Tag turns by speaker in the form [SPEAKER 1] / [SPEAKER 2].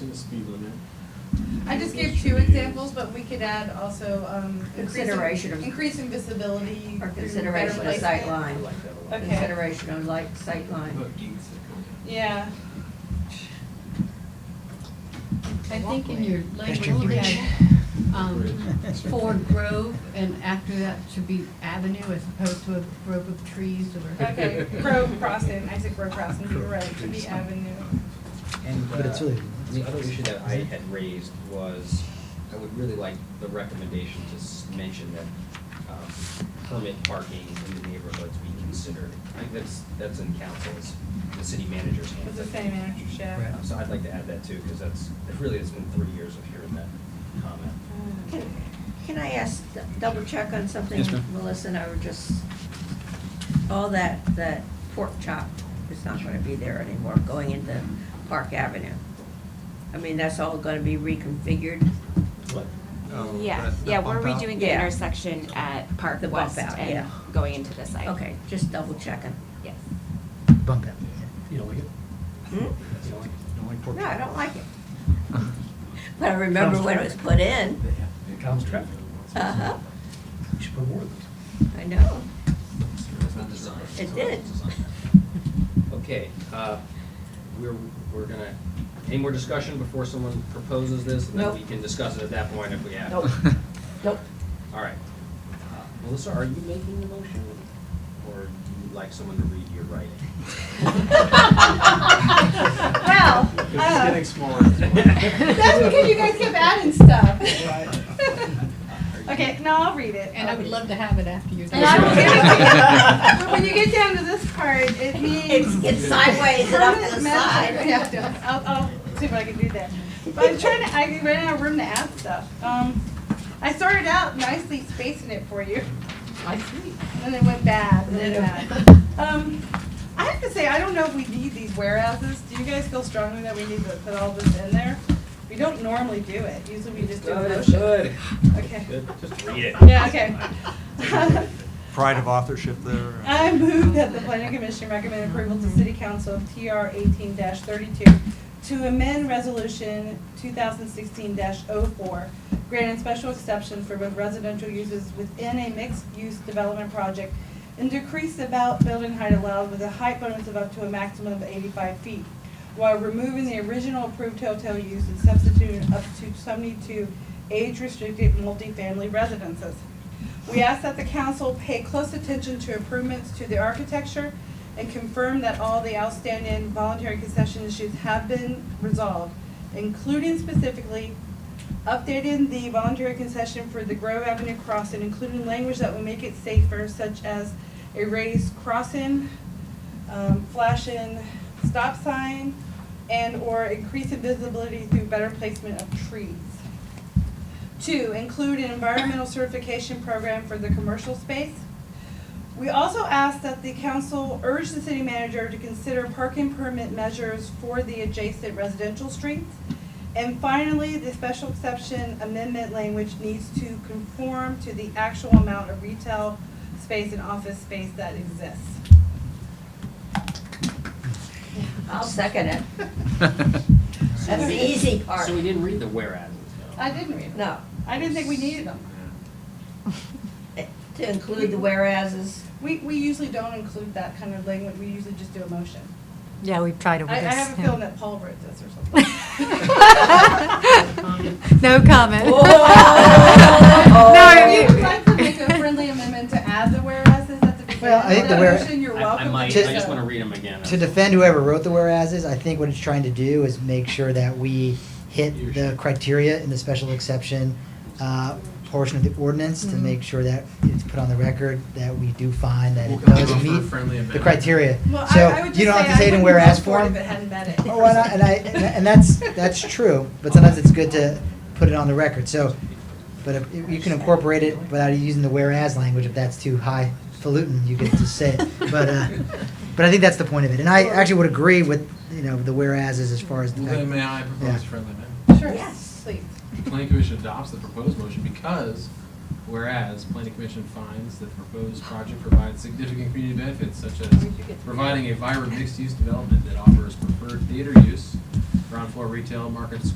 [SPEAKER 1] In the speed limit.
[SPEAKER 2] I just gave two examples, but we could add also, um. increasing-
[SPEAKER 3] Consideration of-
[SPEAKER 2] Increasing visibility.
[SPEAKER 3] Or
[SPEAKER 2] through
[SPEAKER 3] consideration
[SPEAKER 2] better
[SPEAKER 3] of sight
[SPEAKER 2] placement.
[SPEAKER 1] I
[SPEAKER 3] line,
[SPEAKER 1] like that a lot.
[SPEAKER 2] Okay.
[SPEAKER 3] consideration of light, sight line.
[SPEAKER 2] Yeah,
[SPEAKER 4] I think in your
[SPEAKER 5] Pedestrian
[SPEAKER 4] label, you
[SPEAKER 5] bridge.
[SPEAKER 4] had um,
[SPEAKER 5] Bridge.
[SPEAKER 4] Ford Grove, and after that should be Avenue as opposed to a grove of trees or.
[SPEAKER 2] okay, Grove Crossing, I said Grove Crossing, you were right, it should be Avenue.
[SPEAKER 5] And,
[SPEAKER 6] Uh,
[SPEAKER 5] but it's really.
[SPEAKER 6] The other issue that I had raised was, I would really like the recommendation to s- mention that um, permit parking in the neighborhoods be considered. I think that's, that's in council's, the city manager's
[SPEAKER 2] It's
[SPEAKER 6] hands.
[SPEAKER 2] the same manager's
[SPEAKER 5] Right.
[SPEAKER 2] yeah.
[SPEAKER 6] Uh, So I'd like to add that too, because that's, it really has been three years of hearing that comment.
[SPEAKER 3] Can can I ask, double check on something?
[SPEAKER 6] Yes, ma'am.
[SPEAKER 3] Melissa and I were just, all that, that pork chop is not gonna be there anymore going into Park Avenue. I mean, that's all gonna be reconfigured.
[SPEAKER 7] Yeah, yeah, we're redoing the
[SPEAKER 3] Yeah.
[SPEAKER 7] intersection at Park
[SPEAKER 3] The bump
[SPEAKER 7] West
[SPEAKER 3] out,
[SPEAKER 7] and
[SPEAKER 3] yeah.
[SPEAKER 7] going into the site.
[SPEAKER 3] Okay, just double checking.
[SPEAKER 7] Yes.
[SPEAKER 5] Bump out. You don't like it?
[SPEAKER 3] Hmm?
[SPEAKER 5] You don't like, you don't like pork
[SPEAKER 3] No,
[SPEAKER 5] chop?
[SPEAKER 3] I don't like it. But I remember when it was put in.
[SPEAKER 5] It calms traffic.
[SPEAKER 3] Uh-huh,
[SPEAKER 5] You should put more of those.
[SPEAKER 3] I know. It
[SPEAKER 6] It
[SPEAKER 3] did.
[SPEAKER 2] Mm.
[SPEAKER 6] Okay, uh, we're, we're gonna, any more discussion before someone proposes this? And then we
[SPEAKER 3] Nope.
[SPEAKER 6] can discuss it at that point if we have.
[SPEAKER 3] Nope. Nope.
[SPEAKER 6] All right. Uh, Melissa, are you making the motion? Or do you like someone to read your writing?
[SPEAKER 2] Well,
[SPEAKER 1] Because it's
[SPEAKER 2] uh,
[SPEAKER 1] getting smaller. and smaller.
[SPEAKER 2] that's because you guys kept adding stuff. Okay, no, I'll read it.
[SPEAKER 4] And I
[SPEAKER 2] I'll
[SPEAKER 4] would
[SPEAKER 2] read
[SPEAKER 4] love to have it after you're
[SPEAKER 2] it. And I will
[SPEAKER 4] done.
[SPEAKER 2] give it to you, but when you get down to this part, it means.
[SPEAKER 3] It's, it's sideways and up to the
[SPEAKER 2] Permanent map.
[SPEAKER 3] side.
[SPEAKER 2] Yeah, yeah. I'll, I'll see if I can do that. But I'm trying to, I ran out of room to add stuff. Um, I started out nicely spacing it for you,
[SPEAKER 4] I see. uh,
[SPEAKER 2] and then it went bad, and then uh, it went bad. Um, I have to say, I don't know if we need these warehouses. Do you guys feel strongly that we need to put all this in there? We don't normally do it. Usually we just do a motion.
[SPEAKER 6] Good.
[SPEAKER 2] Okay.
[SPEAKER 6] Good, just read it.
[SPEAKER 2] Yeah, okay.
[SPEAKER 8] pride of authorship there.
[SPEAKER 2] I move that the planning commission recommend approval to city council of TR eighteen thirty-two to amend resolution two thousand sixteen 4 granting special exception for both residential uses within a mixed-use development project and decrease the about building height allowed with a height bonus of up to a maximum of eighty-five feet while removing the original approved hotel use and substituting up to seventy-two age-restricted multifamily residences. We ask that the council pay close attention to improvements to the architecture and confirm that all the outstanding voluntary concession issues have been resolved, including specifically updating the voluntary concession for the Grove Avenue crossing, including language that will make it safer, such as a raised crossing, um, flashing stop sign, and/or increasing visibility through better placement of trees. Two, include an environmental certification program for the commercial space. We also ask that the council urge the city manager to consider parking permit measures for the adjacent residential streets. And finally, the special exception amendment language needs to conform to the actual amount of retail space and office space that exists.
[SPEAKER 3] I'll second it. That's the easy part.
[SPEAKER 6] So we didn't read the whereas. though.
[SPEAKER 2] I didn't read them.
[SPEAKER 3] No,
[SPEAKER 2] I didn't think we needed them.
[SPEAKER 3] it- to include the whereases.
[SPEAKER 2] We, we usually don't include that kind of language. We usually just do a motion.
[SPEAKER 9] Yeah, we've tried it with
[SPEAKER 2] I, I
[SPEAKER 9] this.
[SPEAKER 2] have a
[SPEAKER 9] yeah.
[SPEAKER 2] feeling that Paul wrote this or something.
[SPEAKER 9] No comment.
[SPEAKER 3] Whoa.
[SPEAKER 7] Oh.
[SPEAKER 9] No,
[SPEAKER 2] If
[SPEAKER 9] you-
[SPEAKER 2] you'd like to make a friendly amendment to add the whereases at the
[SPEAKER 5] Well, I
[SPEAKER 2] beginning of
[SPEAKER 5] think the
[SPEAKER 2] the
[SPEAKER 5] where-
[SPEAKER 2] motion, you're
[SPEAKER 6] I-
[SPEAKER 2] welcome to
[SPEAKER 6] I
[SPEAKER 2] do
[SPEAKER 6] might,
[SPEAKER 2] so.
[SPEAKER 6] I just wanna read them again.
[SPEAKER 5] To defend whoever wrote the whereases, I think what it's trying to do is make sure that we hit the criteria in the special exception uh, portion of the ordinance
[SPEAKER 2] Mm-hmm.
[SPEAKER 5] to make sure that it's put on the record that we do find that
[SPEAKER 1] We'll
[SPEAKER 5] it
[SPEAKER 1] come
[SPEAKER 5] does
[SPEAKER 1] up with a
[SPEAKER 5] meet
[SPEAKER 1] friendly
[SPEAKER 5] the
[SPEAKER 1] amendment.
[SPEAKER 5] criteria.
[SPEAKER 2] Well, I- I
[SPEAKER 5] So
[SPEAKER 2] would
[SPEAKER 5] you don't
[SPEAKER 2] just
[SPEAKER 5] have to say it
[SPEAKER 2] I
[SPEAKER 5] in
[SPEAKER 2] wouldn't
[SPEAKER 5] whereas
[SPEAKER 2] support it
[SPEAKER 5] form.
[SPEAKER 2] If it hadn't been it.
[SPEAKER 5] Oh, and I, and I, and that's, that's true, but sometimes it's good to put it on the record, so, but if- you can incorporate it without using the whereas language, if that's too highfalutin, you can just say it, but, uh, but I think that's the point of it, and I actually would agree with, you know, the whereas is as far as the
[SPEAKER 1] Well, then may
[SPEAKER 5] fact.
[SPEAKER 1] I propose friendly amendment?
[SPEAKER 2] Sure,
[SPEAKER 3] Yes.
[SPEAKER 2] please.
[SPEAKER 1] The Planning Commission adopts the proposed motion because whereas Planning Commission finds that the proposed project provides significant community benefits such as providing a vibrant mixed-use development that offers preferred theater use, ground floor retail, Market Square